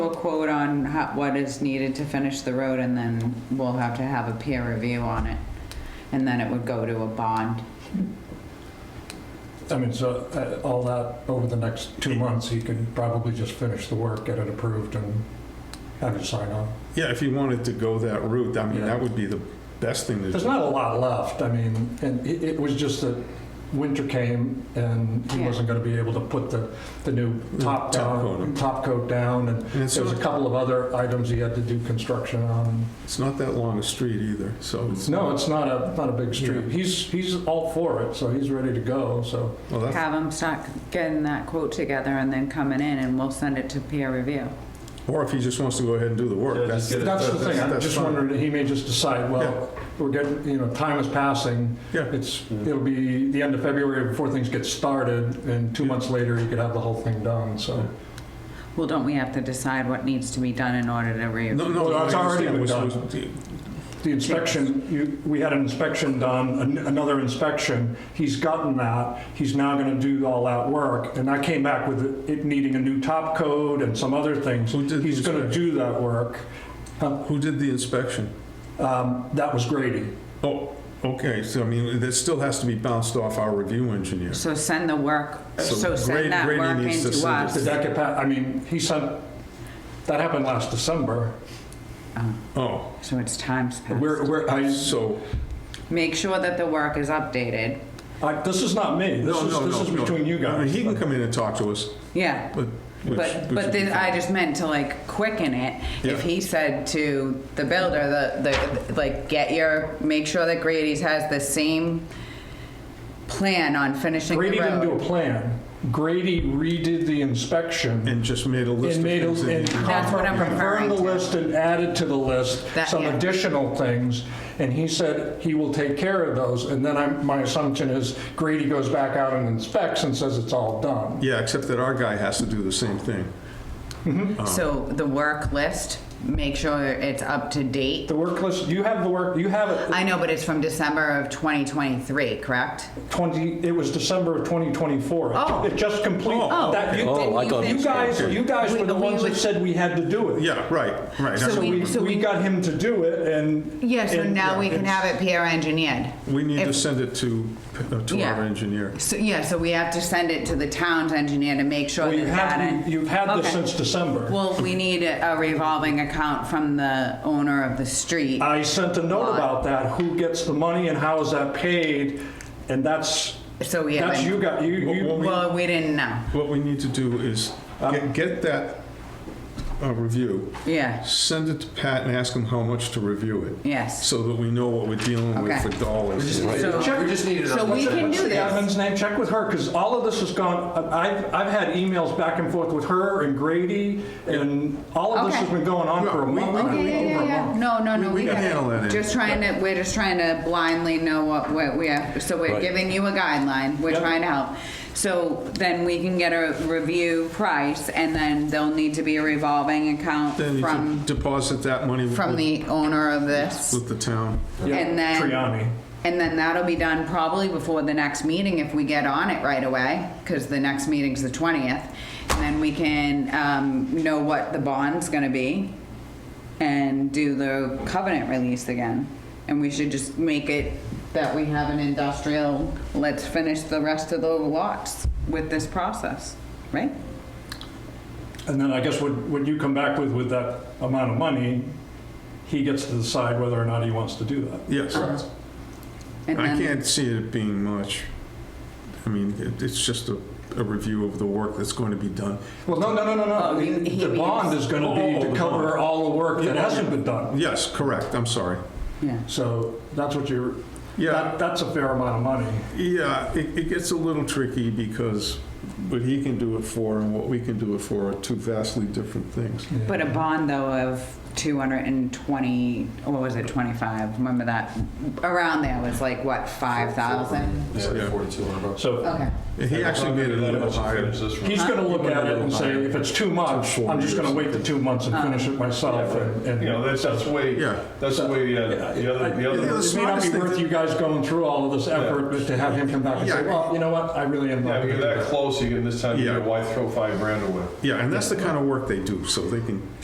a quote on ho- what is needed to finish the road and then we'll have to have a peer review on it. And then it would go to a bond. I mean, so uh, all that, over the next two months, he could probably just finish the work, get it approved, and have you sign on. Yeah, if you wanted to go that route, I mean, Yeah. that would be the best thing to There's do. not a lot left, I mean, and it it was just that winter came, and he Yeah. wasn't going to be able to put the, the new top top coat down, on. top coat down, and And it's there was a not- couple of other items he had to do construction on. It's not that long a street either, so it's. No, it's not a, not a big street. Yeah. He's, he's all for it, so he's ready to go, so. Well, that's, Have them start getting that quote together and then coming in and we'll send it to peer review. or if he just wants to go ahead and do the Yeah, work, just that's. get it That's the thing, I'm that's just fine. wondering, he may just decide, Yeah. well, we're getting, you know, time is passing, Yeah, it's, it'll be the end of February before things get started, and two months later, you could have the whole thing done, so. Well, don't we have to decide what needs to be done in order to re? no, no, Well, it's I already understand. been It was- done. was- The inspection, you, we had an inspection done, an- another inspection, he's gotten that, he's now gonna do all that work, and I came back with it needing a new top code and some other things. Who did the He's gonna inspection? do that work. Who did the inspection? Um, That was Grady. Oh, okay, so I mean, this still has to be bounced off our review engineer. So send the work, So so Grady- send that Grady work needs to into send us. Did that get pa I mean, he sent, that happened last December. Oh, Oh, So it's time's We're, passed. we're, I, so, Make sure that the work is updated. I, this is not me. This no, is, no, no. this is no. between you I mean, guys. He can come in and talk to us, Yeah. but. which- But, which but would be then fine. I just meant to like quicken it. Yeah. If he said to the builder, the, the, like, get your, make sure that Grady's has the same plan on finishing the Grady didn't do a road. plan. Grady redid the inspection And just made a and list of made, a- things. that and he- That's what I'm confirmed confirmed the referring to. list and added to the list That- some yeah. additional things. And he said he will take care of those. And then I'm, my assumption is Grady goes back out and inspects and says it's all done. Yeah, except that our guy has to do the same thing. So the work list, make sure it's up to date. The work list, you have the work, you have it, I know, but it's from December of 2023, correct? 20, it was December of 2024. It- Oh. It just complete, Oh. that, you, Didn't Oh, I you thought- finish you it? guys, you guys were the We- we ones that would- said we had to do it. Yeah, right, right. So That's- we- We, we got him to do it and. Yeah, so and- now we can it's- have it peer engineered. We need to If- send it to, uh, to Yeah. our engineer. So, yeah, so we have to send it to the town's engineer to make sure Well, that you that. have, you've had this Okay. since December. Well, we need a revolving account from the owner of the street. Uh, I sent a note about that, who gets the money and how is that paid? And that's, So we that's you haven't, got, you, Well, you, well, we didn't know. What we need to do is get- get that uh, review, Yeah, send it to Pat and ask him how much to review it, yes. so that we know what we're dealing with Okay. for We dollars. just need, So- we just need it. so on- we can what's do the- this. Admin's name, check with her, because all of this has gone, I- I've, I've had emails back and forth with her and Grady, and all of this Okay. has been going on for a No, we- month. okay, and a week, Yeah, over yeah, a yeah. month. No, no, no. We- we we can got it. handle that, Ann. Just trying to, we're just trying to blindly know what, what we have, so we're Right. giving you a guideline, we're Yep. trying to help. So then we can get a review price, and then there'll need to be a revolving account Then you from, can deposit that money from with the owner of this. with the town. Yeah, And then- Triani. And then that'll be done probably before the next meeting if we get on it right away, because the next meeting's the 20th. And then we can um, know what the bond's gonna be and do the covenant release again. And we should just make it that we have an industrial, let's finish the rest of the lots with this process, right? And then I guess what, what you come back with, with that amount of money, he gets to decide whether or not he wants to do that. Yes. Um, And I then- can't see it being much. I mean, it- it's just a, a review of the work that's going to be done. Well, no, no, no, no, Oh, no. he- The- he The bond means- is gonna Oh, be the to bond. cover all the work that Yeah. hasn't been done. Yes, correct, I'm sorry. Yeah, So that's what you're, Yeah, that, that's a fair amount of money. Yeah, it, it gets a little tricky because what he can do it for and what we can do it for are two vastly different things. but a bond though of 220, what was it, 25? Remember that, around there was like, what, 5,000? Yeah, 4,200 bucks. So Okay. He actually made it a little higher. He's gonna look at it and say, if it's too much, Four I'm just gonna years. wait the two months and finish it myself and. and- You know, that's, that's the way, Yeah. that's the way, uh, the other, the Yeah, other, that's- It may not be worth you guys going through all of this effort but to have him come back and say, Yeah. well, you know what, I really am. not yeah, gonna you're do that that." close, you get this time, of Yeah. year, why throw five grand away? Yeah, and that's the kind of work they do, so they can